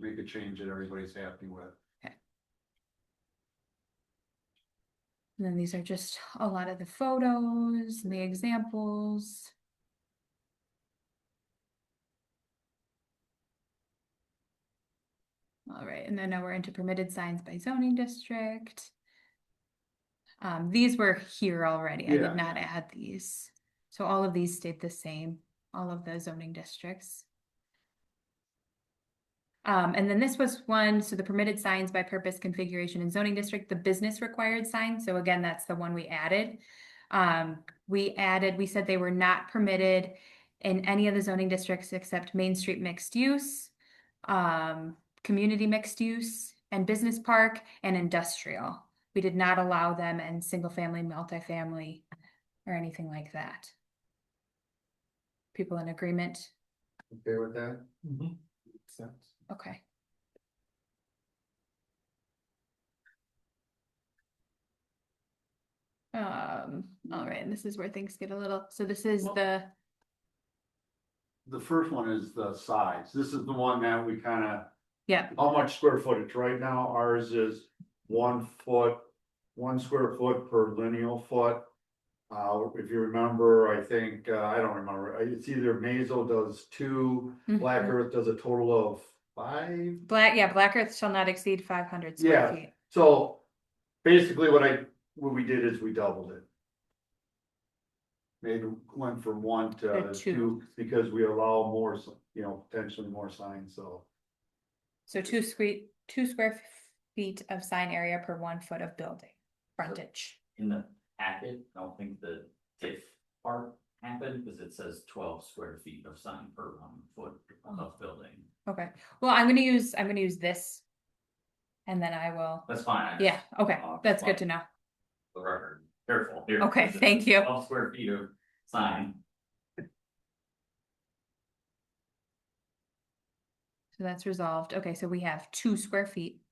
make a change that everybody's happy with. And then these are just a lot of the photos, and the examples. All right, and then now we're into permitted signs by zoning district. Um, these were here already. I Yeah. did not add these. So all of these stayed the same, all of the zoning districts. Um, and then this was one, so the permitted signs by purpose, configuration and zoning district, the business required sign, so again, that's the one we added. Um, we added, we said they were not permitted in any of the zoning districts except Main Street mixed use. Um, community mixed use and business park and industrial. We did not allow them in single family, multifamily, or anything like that. People in agreement? Okay with that? Makes sense. Okay. Um, all right, and this is where things get a little, so this is Well- the, The first one is the size. This is the one that we kind of. yeah, How much square footage? Right now ours is one foot, one square foot per lineal foot. Uh, if you remember, I think, uh, I don't remember, Uh, it's either Mazel does two, Black mhm. Earth does a total of five. Black, yeah, Black Earth shall not exceed five hundred Yeah. square feet. So basically what I, what we did is we doubled it. Made, went from one to To two. two, because we allow more, s- you know, potentially more signs, so. So two sque- two square f- feet of sign area per one foot of building frontage. in the packet, I don't think the diff part happened, because it says twelve square feet of sign per one foot of building. Okay, well, I'm gonna use, I'm gonna use this. And then I will, That's fine. I just- yeah, okay, Uh, that's good well- to know. The record, careful here. Okay, 'cause it thank says you. Twelve square feet of sign, So that's resolved. Okay, so we have two square feet.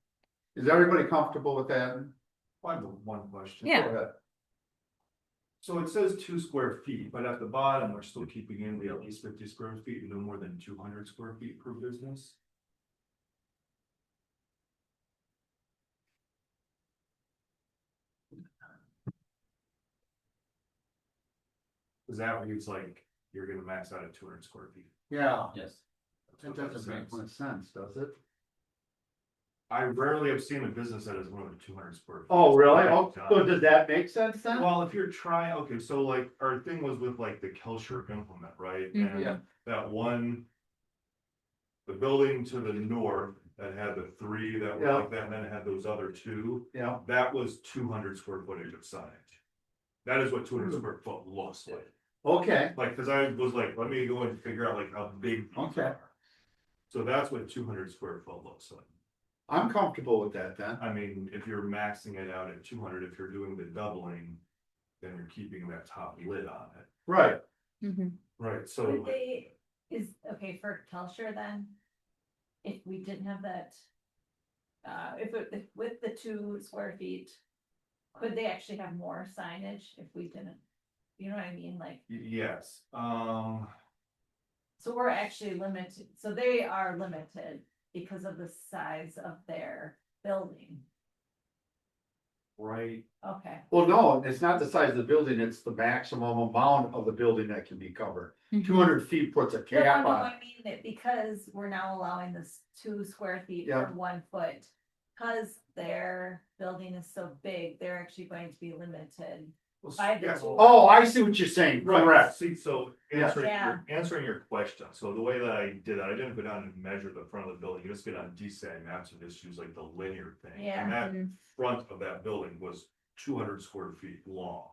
Is everybody comfortable with that? I have one question. Yeah. Go ahead. So it says two square feet, but at the bottom, we're still keeping in the at least fifty square feet and no more than two hundred square feet per business. Cause that reads like you're gonna max out at two hundred square feet. Yeah, yes. That's that what that doesn't make says. much sense, does it? I rarely have seen a business that is more than two hundred square. feet. Oh, really? Oh, Yeah. so does that make sense then? Well, if you're trying, okay, so like, our thing was with like the Kelcher implement, right? Mhm. Mm-hmm, Yeah. And that one. The building to the north that had the three that were Yeah. like that, and then it had those other two, Yeah, that was two hundred square footage of signage. That is what two Hmm. hundred square foot looks like, okay, like, cause I was like, let me go and figure out like how big. these Okay. are. So that's what two hundred square foot looks like. I'm comfortable with that then. I mean, if you're maxing it out at two hundred, if you're doing the doubling, then you're keeping that top lid on it. Right, Mhm. Right, so Would they, is, okay, for Telsure then? If we didn't have that. Uh, if it, if with the two square feet, could they actually have more signage if we didn't? You know what I mean, like, y- yes, um, so we're actually limited, so they are limited because of the size of their building, right, okay. well, no, it's not the size of the building, it's the maximum amount of the building that can be covered. Mhm. Two hundred feet puts a No, no, cap no, on it. I mean that because we're now allowing this two square feet Yeah. for one foot. Cause their building is so big, they're actually going to be limited. well, s- By the yeah, two. well, Oh, I see what you're saying, Right, correct, see, so Yeah. answering, Yeah. your- answering your question, so the way that I did that, I didn't go down and measure the front of the building, you just get on DSAT maps and just use like the linear thing. Yeah. And Mm-hmm. that Mhm. front of that building was two hundred square feet long.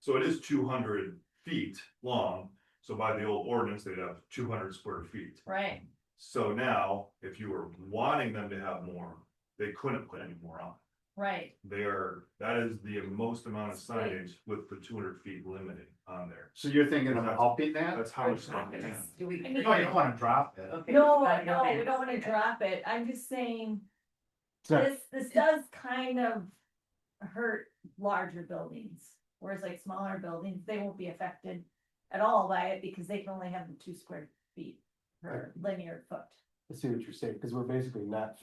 So it is two hundred feet long, so by the old ordinance, they'd have two hundred square feet. Right. So now, if you were wanting them to have more, they couldn't put any more on. Right, They are, that is the most amount of Right. signage with the two hundred feet limited on there. so you're thinking of upping that? That's how it's done. I No, mean, you don't wanna drop it. no, no, we don't wanna drop it, I'm just saying, So, this, this does kind of hurt larger buildings. Whereas like smaller buildings, they won't be affected at all by it because they can only have the two square feet per linear foot. I see what you're saying, because we're basically not